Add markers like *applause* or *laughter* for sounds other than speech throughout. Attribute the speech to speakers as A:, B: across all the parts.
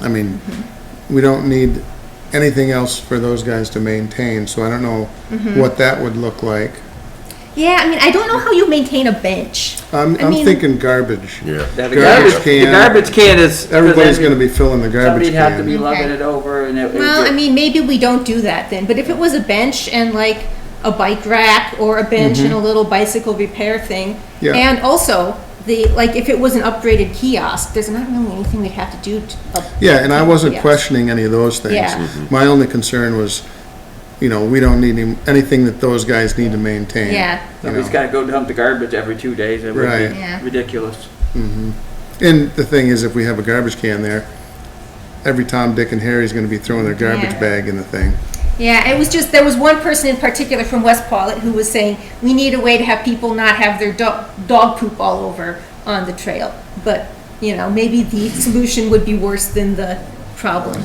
A: I mean, we don't need anything else for those guys to maintain, so I don't know
B: Mm-hmm.
A: what that would look like.
B: Yeah, I mean, I don't know how you maintain a bench.
A: I'm,
B: I
A: I'm
B: mean-
A: thinking garbage.
C: Yeah.
D: Yeah, the
A: Garbage
D: garbage, the
A: can.
D: garbage can is. 'cause
A: Everybody's
D: then
A: gonna be filling the garbage
D: Somebody'd have to be
A: can.
D: lugging it over and it. it
B: Well,
D: would-
B: I mean, maybe we don't do that then, but if it was a bench and like a bike rack or a bench and a little bicycle repair thing,
A: Yeah.
B: and also the, like, if it was an upgraded kiosk, there's not really anything we'd have to do to. up-
A: Yeah, and I wasn't
B: Yeah.
A: questioning any of those things.
B: Yeah.
D: Mm-hmm.
B: Mhm.
A: My only concern was, you know, we don't need any- anything that those guys need to maintain.
B: Yeah.
A: you
D: Somebody's
A: know.
D: gotta go dump the garbage every two days. It would
A: Right.
D: be
B: Yeah.
D: ridiculous.
A: And the thing is, if we have a garbage can there, every Tom, Dick, and Harry's gonna be throwing their garbage
B: Yeah.
A: bag in the thing.
B: Yeah, it was just, there was one person in particular from West Paulet who was saying, we need a way to have people not have their dog, dog poop all over on the trail. But, you know, maybe the solution would be worse than the problem.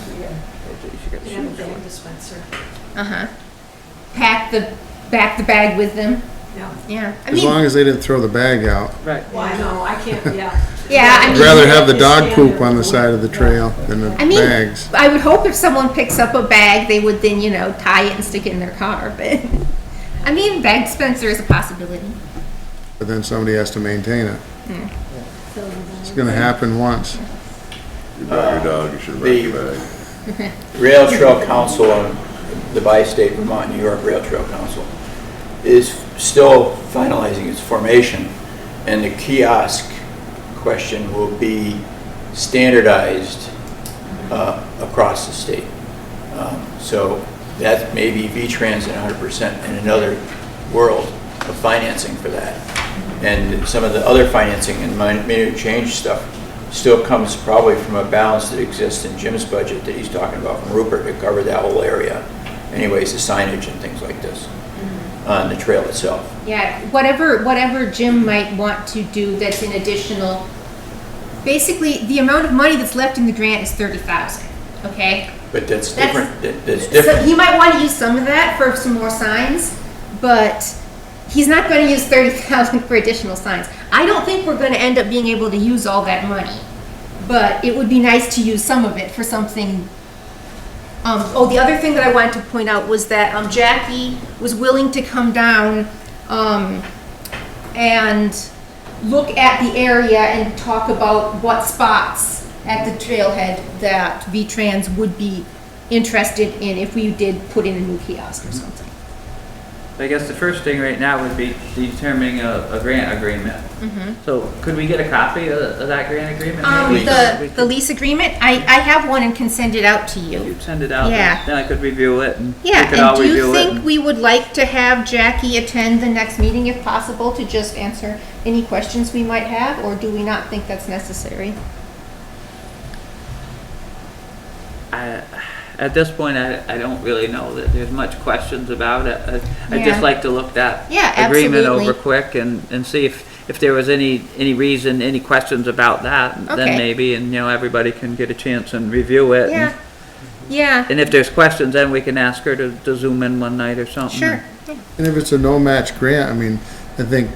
E: And a dispenser.
B: Uh-huh. Pack the, back the bag with them.
E: No,
B: Yeah. I
A: As
B: mean,
A: long as they didn't throw the bag out.
D: Right.
E: why no, I can't, yeah.
B: Yeah, I
A: I'd
B: mean-
A: rather have the dog
E: Stand
A: poop
E: there.
A: on the side of the trail than the
B: I mean,
A: bags.
B: I would hope if someone picks up a bag, they would then, you know, tie it and stick it in their car, *laughs* but, I mean, bag dispenser is a possibility.
A: But then somebody has to maintain it. It's gonna happen once.
C: You bought your dog, you should have brought your bag.
F: Rail Trail Council, on the bi-state Vermont, New York Rail Trail Council, is still finalizing its formation, and the kiosk question will be standardized uh, across the state. Um, So that may be V-Trans and 100% in another world of financing for that. And some of the other financing and min- minor change stuff still comes probably from a balance that exists in Jim's budget that he's talking about from Rupert to cover that whole area. Anyways, the signage and things like this on the trail itself.
B: Yeah, whatever, whatever Jim might want to do that's an additional, basically, the amount of money that's left in the grant is thirty thousand, okay?
F: But that's
B: That's-
F: different, that- that's
B: So
F: different.
B: he might want to use some of that for some more signs, but he's not going to use thirty thousand for additional signs. I don't think we're going to end up being able to use all that money, but it would be nice to use some of it for something. Um, oh, the other thing that I wanted to point out was that um, Jackie was willing to come down um, and look at the area and talk about what spots at the trailhead that V-Trans would be interested in if we did put in a new kiosk or something.
D: I guess the first thing right now would be determining a, a grant agreement. So could we get a copy of, of that grant agreement?
B: Mm-hmm. Um,
D: maybe?
B: the,
D: We
B: the
D: could-
B: lease agreement, I, I have one and can send it out to you.
D: You'd send it out,
B: Yeah.
D: then then I could review it and we
B: Yeah,
D: could
B: and
D: all
B: do you
D: review it.
B: think
D: and-
B: we would like to have Jackie attend the next meeting if possible to just answer any questions we might have, or do we not think that's necessary?
D: I- At this point, I, I don't really know that there's much questions about it. I- I'd
B: Yeah.
D: just like to look that
B: Yeah,
D: agreement over
B: absolutely.
D: quick and, and see if, if there was any, any reason, any questions about that.
B: Okay.
D: Then maybe, and you know, everybody can get a chance and review it. and-
B: Yeah, yeah,
D: And if there's questions, then we can ask her to, to zoom in one night or something.
B: sure, yeah.
A: And if it's a no-match grant, I mean, I think,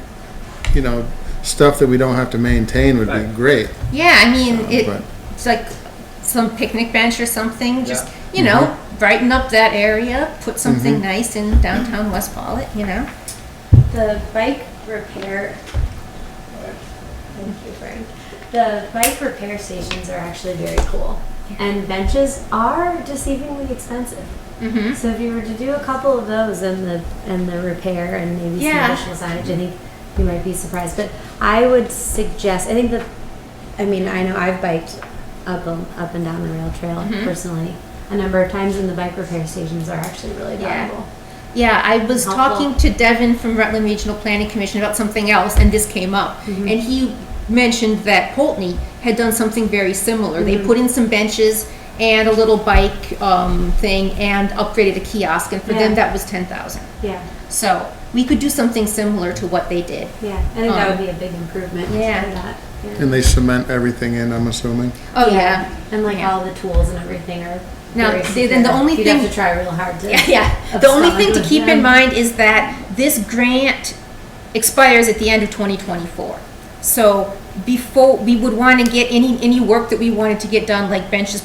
A: you know, stuff that we don't have to maintain would be
D: Right.
A: great.
B: Yeah, I mean,
A: Uh,
B: it,
A: but-
B: it's like some picnic bench or something, just, you know, brighten up that area, put something nice in downtown West Pollet, you know?
G: The bike repair, thank you, Frank. The bike repair stations are actually very cool. And benches are deceivingly expensive.
B: Mm-hmm.
G: So if you were to do a couple of those and the, and the repair and maybe
B: Yeah.
G: some additional signage, I think you might be surprised. But I would suggest, I think that, I mean, I know I've biked up, and- up and down the rail trail
B: Mm-hmm.
G: personally a number of times and the bike repair stations are actually really
B: Yeah.
G: valuable.
B: Yeah, I was
G: Helpful.
B: talking to Devin from Rutland Regional Planning Commission about something else, and this came up.
G: Mm-hmm.
B: And he mentioned that Poultney had done something very similar. They
G: Mm-hmm.
B: put in some benches and a little bike um, thing and upgraded a kiosk, and for them,
G: Yeah.
B: that was 10000
G: Yeah,
B: So we could do something similar to what they did.
G: yeah. I think that
B: Um,
G: would be a big improvement
B: yeah.
G: for that. yeah.
A: And they cement everything in, I'm assuming.
B: Oh, yeah.
G: And like
B: Yeah. *laughs*
G: all the tools and everything are.
B: Now,
G: very
B: the- then the
G: secure.
B: only
G: You'd
B: thing-
G: have to try real hard
B: *laughs*
G: to.
B: Yeah, yeah. The only thing to
G: abscond
B: keep
G: them.
B: in mind is that this grant expires at the end of 2024. So before, we would want to get any, any work that we wanted to get done, like benches,